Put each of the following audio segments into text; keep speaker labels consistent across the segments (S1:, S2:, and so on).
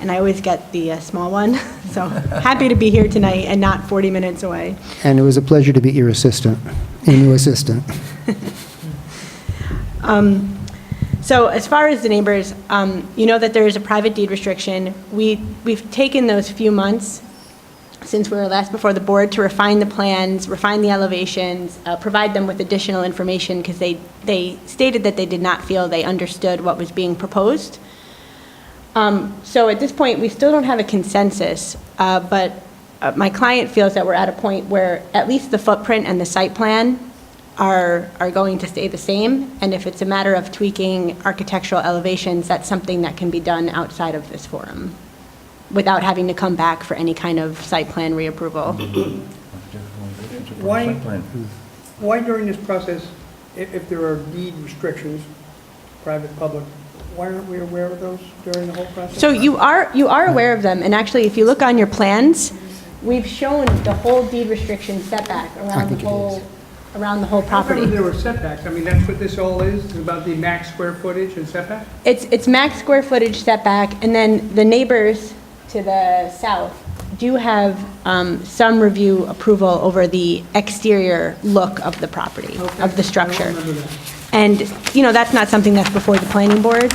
S1: and I always get the uh, small one. So happy to be here tonight and not 40 minutes away.
S2: And it was a pleasure to be your assistant, and your assistant.
S1: Um, So as far as the neighbors, um, you know that there is a private deed restriction. We, we've taken those few months since we were last before the board to refine the plans, refine the elevations, uh, provide them with additional information because they, they stated that they did not feel they understood what was being proposed. Um, So at this point, we still don't have a consensus, uh, but uh, my client feels that we're at a point where at least the footprint and the site plan are, are going to stay the same, and if it's a matter of tweaking architectural elevations, that's something that can be done outside of this forum, without having to come back for any kind of site plan reapproval.
S3: Why- Why during this process, if, if there are deed restrictions, private, public, why aren't we aware of those during the whole process?
S1: So you are, you are aware of them, and actually, if you look on your plans, we've shown the whole deed restriction setback around the
S2: think it
S1: whole, around the whole
S3: I remember
S1: property.
S3: there were setbacks, I mean, that's what this all is, is about the max square footage and setback?
S1: It's, it's max square footage setback, and then the neighbors to the south do have um, some review approval over the exterior look of the property, of the
S3: I
S1: structure.
S3: don't remember that.
S1: And, you know, that's not something that's before the planning board,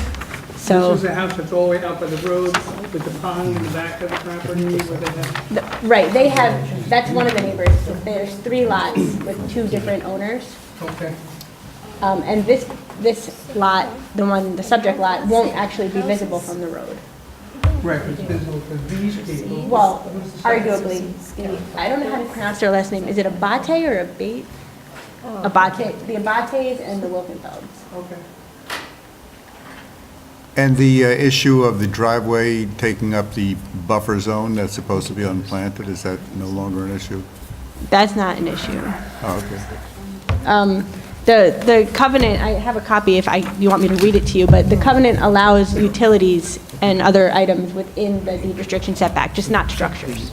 S1: so,
S3: This is a house that's all the way out by the road, with the pond in the back of the property, where they have,
S1: the- right, they have, that's one of the neighbors. There's three lots with two different owners.
S3: okay.
S1: Um, And this, this lot, the one, the subject lot, won't actually be visible from the road.
S3: Right, it's visible to these people.
S1: Well, arguably, I don't know how to pronounce their last name. Is it Abate or Abate? Abate, Oh. the Abates and the Wilkenfelds.
S3: Okay.
S4: And the uh, issue of the driveway taking up the buffer zone that's supposed to be unplanted, is that no longer an issue?
S1: That's not an issue.
S4: Oh, okay.
S1: Um, The, the covenant, I have a copy if I, you want me to read it to you, but the covenant allows utilities and other items within the deed restriction setback, just not structures.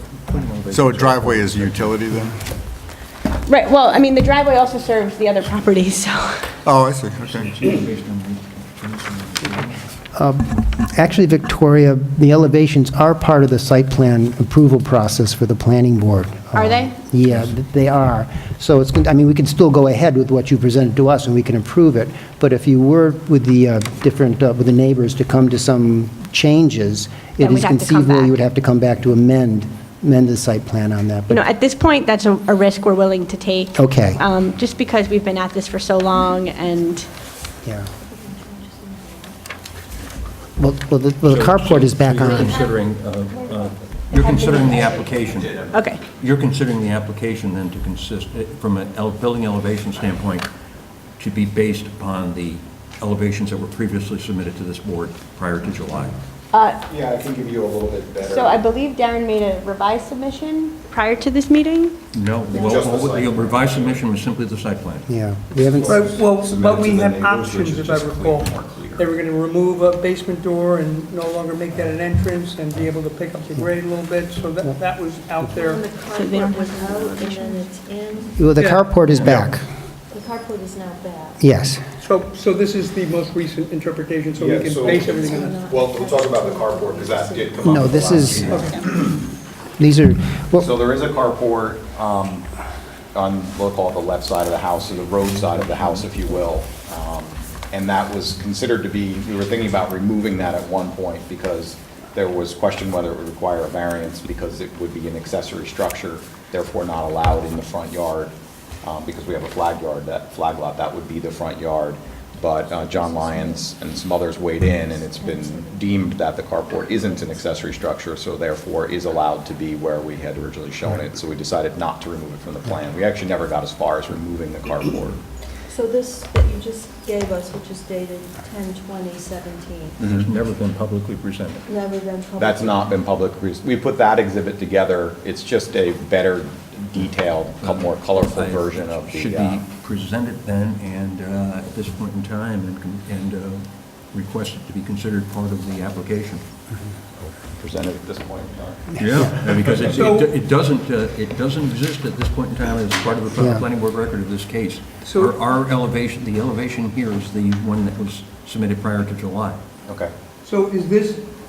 S4: So a driveway is a utility then?
S1: Right, well, I mean, the driveway also serves the other properties, so.
S4: Oh, I see, okay.
S2: Actually, Victoria, the elevations are part of the site plan approval process for the planning board.
S1: Are
S2: Um,
S1: they?
S2: Yeah, th- they are. So it's, gon- I mean, we can still go ahead with what you presented to us, and we can approve it, but if you were with the uh, different, uh, with the neighbors to come to some changes,
S1: Then
S2: it is
S1: we'd have to come
S2: conceivable
S1: back.
S2: you would have to come back to amend, amend the site plan on that.
S1: You
S2: but-
S1: know, at this point, that's a a risk we're willing to take.
S2: Okay.
S1: Um, Just because we've been at this for so long and
S2: Yeah. Well, well, the well, the carport is back
S5: So You're
S2: on.
S5: considering, uh, uh, you're considering the application.
S1: Okay,
S5: You're considering the application then to consist, eh, from a ele- building elevation standpoint, to be based upon the elevations that were previously submitted to this board prior to July.
S6: Yeah, I can give you a little bit better.
S1: so I believe Darren made a revised submission prior to this meeting?
S5: No,
S6: Just the
S5: well, well,
S6: site
S5: the
S6: plan.
S5: revised submission was simply the site plan.
S2: Yeah, we haven't,
S3: But, well,
S6: Submitted
S3: but
S6: to
S3: we
S6: the
S3: had
S6: neighbors, which
S3: options,
S6: is
S3: if I
S6: just
S3: recall.
S6: clean, more clear.
S3: They were going to remove a basement door and no longer make that an entrance and be able to pick up the grade a little bit, so that, that was out there.
S7: And the
S1: they don't
S7: carport was out, and then it's in,
S2: well, the
S3: Yeah.
S2: carport is back,
S7: the carport is now back.
S2: yes.
S3: So, so this is the most recent interpretation, so we
S6: Yeah,
S3: can
S6: so-
S3: base everything on that.
S6: Well, we'll talk about the carport, because that did come up.
S2: No,
S6: at the
S2: this
S6: last
S2: is,
S6: meeting.
S2: these are, well,
S6: So there is a carport um, on, we'll call it the left side of the house, or the road side of the house, if you will. Um, And that was considered to be, we were thinking about removing that at one point, because there was question whether it would require a variance, because it would be an accessory structure, therefore not allowed in the front yard, um, because we have a flag yard, that flag lot, that would be the front yard. But uh, John Lyons and some others weighed in, and it's been deemed that the carport isn't an accessory structure, so therefore is allowed to be where we had originally shown it, so we decided not to remove it from the plan. We actually never got as far as removing the carport.
S7: So this that you just gave us, which is dated 10/20/17,
S5: It's never been publicly presented.
S7: never been published.
S6: Mm-hmm. That's not been public, re- we put that exhibit together, it's just a better detailed, co- more colorful version of
S5: Should
S6: the, uh,
S5: be presented then, and uh, at this point in time, and con- and uh, requested to be considered part of the application.
S6: presented at this point in time.
S5: Yeah, because it's-
S3: So-
S5: it do- it doesn't, uh, it doesn't exist at this point in time as part of the
S2: Yeah.
S5: planning board record of this case.
S3: So-
S5: Our our elevation, the elevation here is the one that was submitted prior to July.
S6: Okay.
S3: So is this